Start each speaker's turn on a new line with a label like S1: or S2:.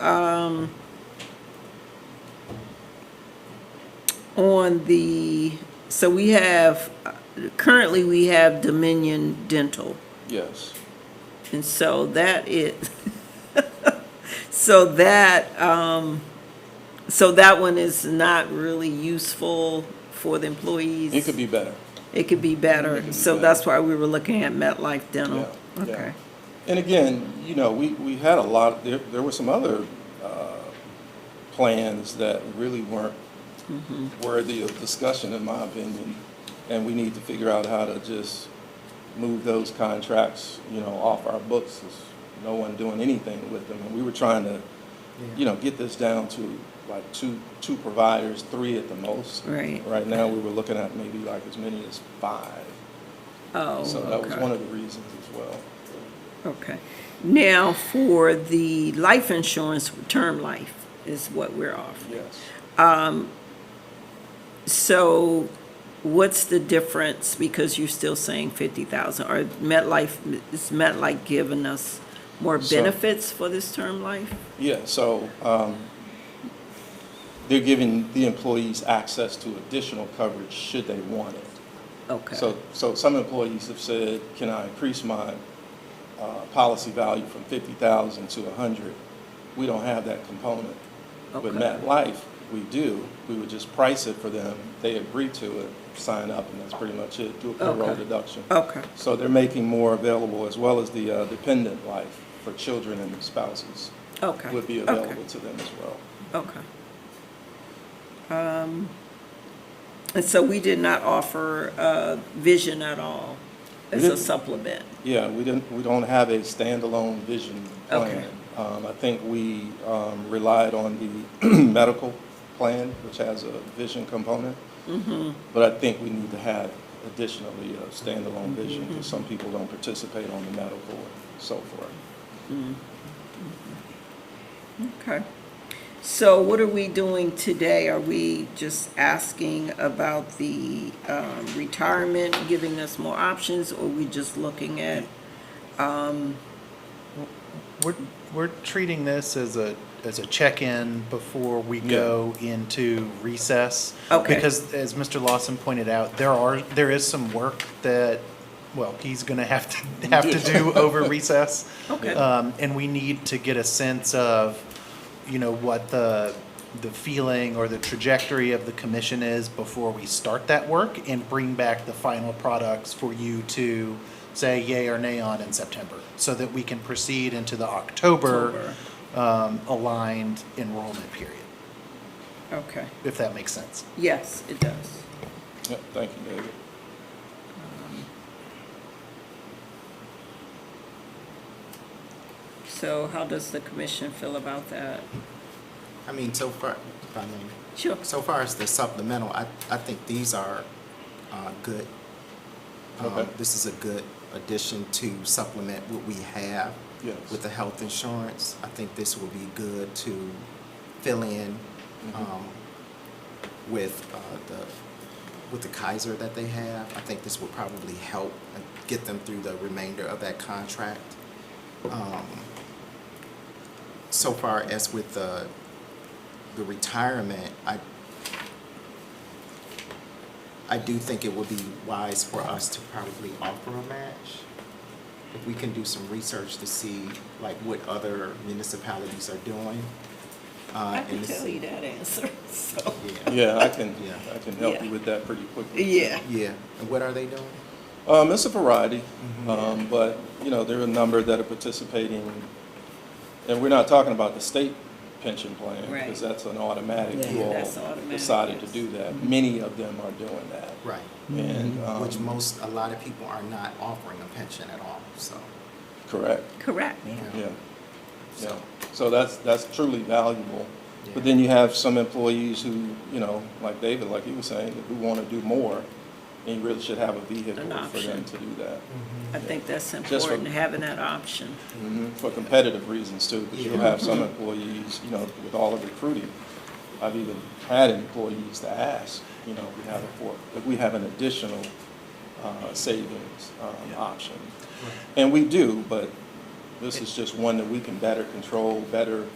S1: um, on the, so we have, currently we have Dominion Dental.
S2: Yes.
S1: And so that is, so that, um, so that one is not really useful for the employees.
S2: It could be better.
S1: It could be
S2: It could
S1: better.
S2: be
S1: So
S2: better.
S1: that's why we were looking at MetLife Dental.
S2: Yeah, yeah.
S1: Okay.
S2: And again, you know, we, we had a lot, there, there were some other, uh, plans that really weren't worthy of discussion, in my opinion. And we need to figure out how to just move those contracts, you know, off our books. There's no one doing anything with them. And we were trying to, you know, get this down to like two, two providers, three at the most.
S1: Right.
S2: Right now, we were looking at maybe like as many as five.
S1: Oh,
S2: So that was
S1: okay.
S2: one of the reasons as well.
S1: Okay. Now, for the life insurance, term life is what we're offering.
S2: Yes.
S1: So what's the difference? Because you're still saying fifty thousand, or MetLife, is MetLife giving us more
S2: So-
S1: benefits for this term life?
S2: Yeah, so um, they're giving the employees access to additional coverage should they want it.
S1: Okay,
S2: So, so some employees have said, can I increase my uh, policy value from 50,000 to 100? We don't have that component. With
S1: Okay.
S2: MetLife, we do. We would just price it for them. They agree to it, sign up, and that's pretty much it. Do a payroll
S1: Okay. Oh,
S2: deduction.
S1: okay,
S2: So they're making more available, as well as the uh, dependent life for children and spouses
S1: okay.
S2: would be
S1: okay,
S2: available to them as well.
S1: Okay. Um, And so we did not offer, uh, vision at all as a
S2: didn't.
S1: supplement?
S2: Yeah, we didn't, we don't have a standalone vision
S1: Okay.
S2: plan. Um, I think we um, relied on the medical plan, which has a vision component.
S1: Mm-hmm.
S2: But I think we need to have additionally a standalone
S1: Mm-hmm.
S2: vision, because some people don't participate on the medical and so forth.
S1: Okay. So what are we doing today? Are we just asking about the um, retirement, giving us more options, or we just looking at,
S3: We're, we're treating this as a, as a check-in before we
S2: Yeah.
S3: go into recess.
S1: Okay.
S3: Because as Mr. Lawson pointed out, there are, there is some work that, well, he's gonna have to, have to do over recess.
S1: Okay.
S3: Um, and we need to get a sense of, you know, what the, the feeling or the trajectory of the commission is before we start that work and bring back the final products for you to say yay or nay on in September, so that we can proceed into the October, um, aligned enrollment period,
S1: okay,
S3: if that makes sense.
S1: yes, it does.
S2: Yep, thank you, David.
S1: So how does the commission feel about that?
S4: I mean, so far, if I may,
S1: Sure.
S4: so far as the supplemental, I, I think these are, uh, good. Um,
S2: Okay.
S4: this is a good addition to supplement what we have
S2: Yes.
S4: with the health insurance. I think this will be good to fill in,
S2: Mm-hmm.
S4: um, with, uh, the, with the Kaiser that they have. I think this will probably help and get them through the remainder of that contract. Um, So far as with the, the retirement, I, I do think it would be wise for us to probably offer a match. If we can do some research to see like what other municipalities are doing. uh,
S1: I
S4: and
S1: can
S4: to
S1: tell
S4: see-
S1: you that answer, so,
S4: Yeah,
S2: Yeah, I can,
S4: Yeah.
S2: I can help
S1: Yeah.
S2: you with that pretty quickly.
S1: yeah.
S4: yeah. And what are they doing?
S2: Um, it's a variety, um, but, you know, there are a number that are participating, and we're not talking about the state pension plan,
S1: Right.
S2: because that's an automatic,
S4: Yeah.
S2: you all
S1: That's automatic,
S2: decided to
S1: yes.
S2: do that. Many of them are doing that.
S4: Right. Mm-hmm.
S2: And,
S4: Which
S2: um,
S4: most, a lot of people are not offering a pension at all, so.
S2: correct,
S1: Correct,
S2: yeah, yeah. So that's, that's truly valuable.
S4: Yeah.
S2: But then you have some employees who, you know, like David, like he was saying, who want to do more, and you really should have a vehicle for
S1: option.
S2: them to do that.
S4: Mm-hmm.
S1: I think that's
S2: for-
S1: important, having that option.
S2: Mhm, For competitive reasons too, because you'll
S4: Yeah.
S2: have some employees, you know, with all the recruiting, I've even had employees to ask, you know, we have a four, if we have an additional uh, savings um, option. And we do, but this is just one that we can better control, better